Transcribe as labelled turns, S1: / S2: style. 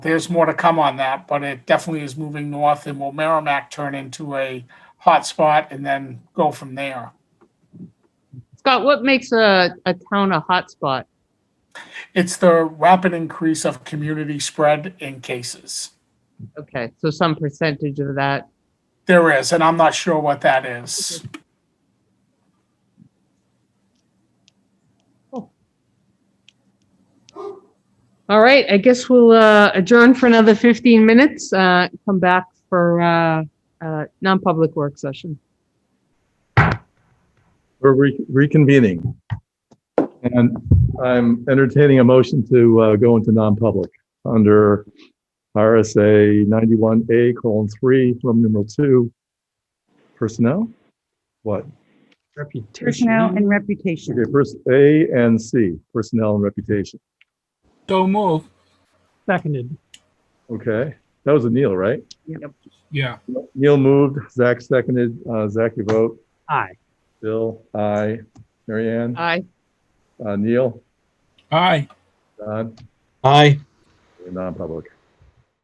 S1: there's more to come on that, but it definitely is moving north and will Merrimack turn into a hotspot and then go from there?
S2: Scott, what makes a, a town a hotspot?
S1: It's the rapid increase of community spread in cases.
S2: Okay, so some percentage of that.
S1: There is, and I'm not sure what that is.
S2: All right, I guess we'll uh, adjourn for another 15 minutes, uh, come back for uh, uh, non-public work session.
S3: We're re- reconvening. And I'm entertaining a motion to uh, go into non-public under RSA 91A colon 3, Roman numeral 2, personnel? What?
S4: Personnel and
S3: Okay,
S4: reputation.
S3: first A and C, personnel and reputation.
S5: So move.
S6: Seconded.
S3: Okay, that was a Neil, right?
S5: Yeah.
S3: Neil moved, Zach seconded. Uh, Zach, you vote.
S6: Aye.
S3: Bill, aye. Mary Ann?
S2: Aye.
S3: Uh, Neil?
S5: Aye.
S3: Don?
S6: Aye.
S3: We're Non-public.